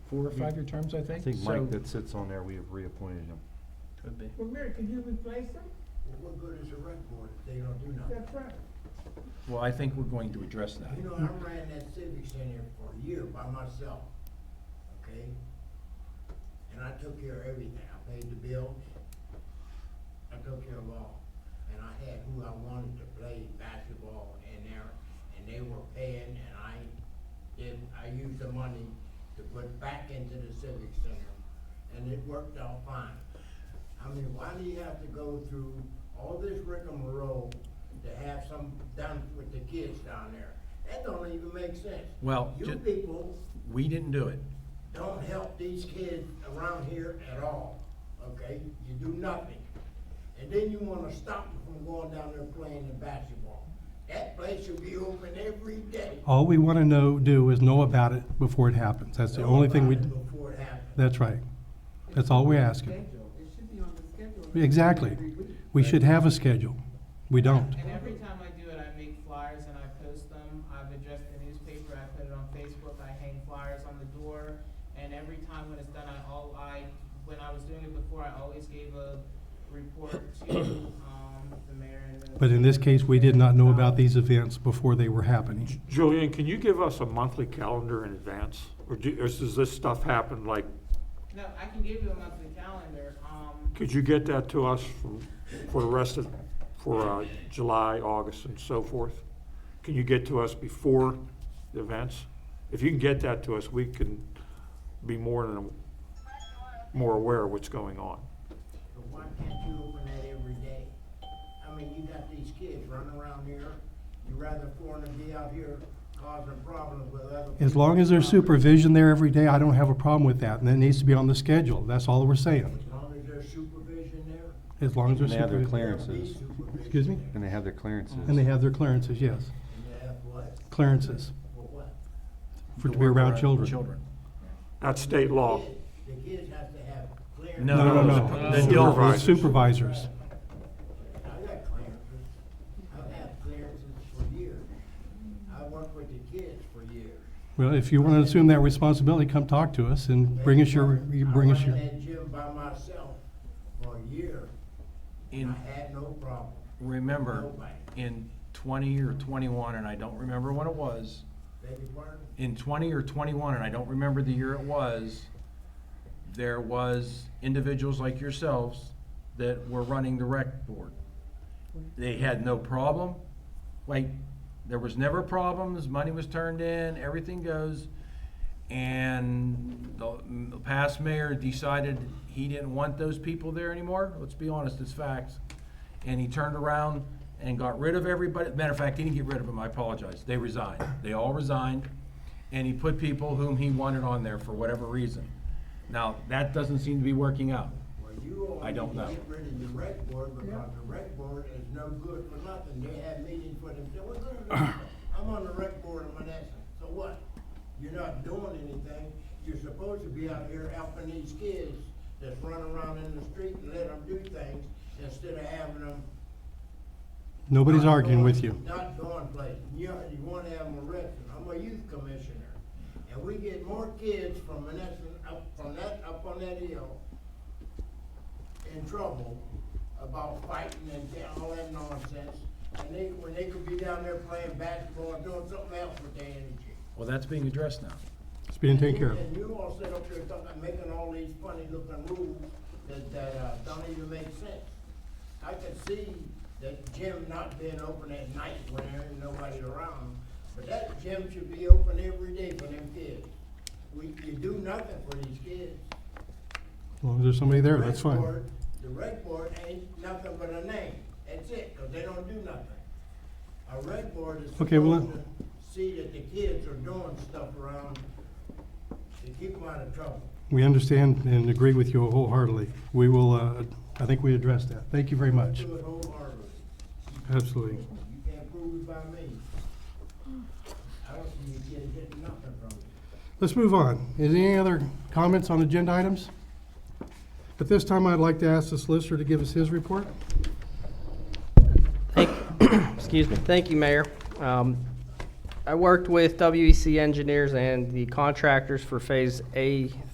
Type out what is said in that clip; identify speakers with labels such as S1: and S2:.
S1: four or five-year terms, I
S2: I
S1: think.
S2: think Mike
S1: So-
S2: that sits on there, we have reappointed him.
S3: Could be.
S4: Well, Mary, can you replace them?
S5: What good is a rec board if they don't do nothing?
S4: That's right.
S1: Well, I think we're going to address that.
S5: You know, I ran that civic center for a year by myself, okay? And I took care of everything. I paid the bills. I took care of all. And I had who I wanted to play basketball in there, and they were paying, and I did, I used the money to put back into the civic center, and it worked out fine. I mean, why do you have to go through all this rigmarole to have some done with the kids down there? That don't even make sense.
S1: Well,
S5: You
S1: ju-
S5: people
S1: We didn't do it.
S5: don't help these kids around here at all, okay? You do nothing. And then you wanna stop them from going down there playing the basketball. That place should be open every day.
S6: All we want to know, do is know about it before it happens. That's the only thing we,
S5: Before it happens.
S6: that's right. That's all we're asking.
S7: Schedule. It should be on the schedule.
S6: Exactly.
S7: Every week.
S6: We should have a schedule. We don't.
S7: And every time I do it, I make flyers and I post them. I've addressed the newspaper, I put it on Facebook, I hang flyers on the door. And every time when it's done, I all, I, when I was doing it before, I always gave a report to, um, the mayor and the. Um,
S6: But in this case, we did not know about these events before they were happening.
S8: Julian, can you give us a monthly calendar in advance? Or do, or does this stuff happen like,
S7: No, I can give you a monthly calendar, um,
S8: could you get that to us from- for the rest of, for uh, July, August, and so forth? Can you get to us before the events? If you can get that to us, we can be more than, more aware of what's going on.
S5: But why can't you open that every day? I mean, you got these kids running around here, you rather for them to be out here causing problems with other.
S6: As long as there's
S5: people's property.
S6: supervision there every day, I don't have a problem with that. And that needs to be on the schedule. That's all we're saying.
S5: As long as there's supervision there.
S6: As long as there's
S2: And they have their
S6: supervision.
S5: there'll be
S2: clearances,
S5: supervision
S6: Excuse me?
S5: there.
S2: and they have their clearances.
S6: And they have their clearances, yes.
S5: And they have what?
S6: Clearances
S5: For what?
S6: for to be around children.
S1: Children.
S8: That's state law.
S5: Kids- The kids have to have clearance.
S1: No,
S6: No, no,
S1: No.
S6: no. Supervi- Supervisors.
S5: I got clearances. I've had clearances for years. I worked with the kids for years.
S6: Well, if you want to assume that responsibility, come talk to us and bring us your, you bring us your.
S5: I ran that gym by myself for a year.
S1: In,
S5: I had no problem.
S1: remember,
S5: Nobody.
S1: in twenty or twenty-one, and I don't remember when it was,
S5: Beg your pardon?
S1: in twenty or twenty-one, and I don't remember the year it was, there was individuals like yourselves that were running the rec board. They had no problem, like, there was never problems, money was turned in, everything goes. And the the past mayor decided he didn't want those people there anymore, let's be honest, it's facts. And he turned around and got rid of everybody, matter of fact, he didn't get rid of them, I apologize, they resigned, they all resigned. And he put people whom he wanted on there for whatever reason. Now, that doesn't seem to be working out.
S5: Well, you all
S1: I
S5: need
S1: don't
S5: to
S1: know.
S5: get rid of the rec board because the rec board is no good for nothing. They have meetings for themselves. What's gonna do? I'm on the rec board in Menneson, so what? You're not doing anything. You're supposed to be out here helping these kids that's running around in the street and let them do things instead of having them.
S6: Nobody's
S5: not
S6: arguing
S5: going-
S6: with you.
S5: Not going places. You, you wanna have them arrested. I'm a youth commissioner. And we get more kids from Menneson, up, from that, up on that hill in trouble about fighting and all that nonsense. And they, when they could be down there playing basketball, and doing something else with their energy.
S1: Well, that's being addressed now.
S6: It's being taken care of.
S5: And you all sit up there talking, making all these funny looking rules that, that, uh, don't even make sense. I could see that gym not being open at night when there ain't nobody around, but that gym should be open every day for them kids. We, you do nothing for these kids.
S6: As long as there's somebody there, that's
S5: Rec
S6: fine.
S5: board- The rec board ain't nothing but a name, that's it, 'cause they don't do nothing. A rec board is
S6: Okay, well,
S5: supposed to see that the kids are doing stuff around to keep them out of trouble.
S6: We understand and agree with you wholeheartedly. We will, uh, I think we addressed that. Thank you very much.
S5: Do it wholeheartedly,
S6: Absolutely.
S5: you can't prove it by me. I don't see you kids getting nothing from it.
S6: Let's move on. Is there any other comments on agenda items? At this time, I'd like to ask the solicitor to give us his report.
S9: Excuse me. Thank you, Mayor. Um,
S3: E I worked with WEC engineers and the contractors for Phase A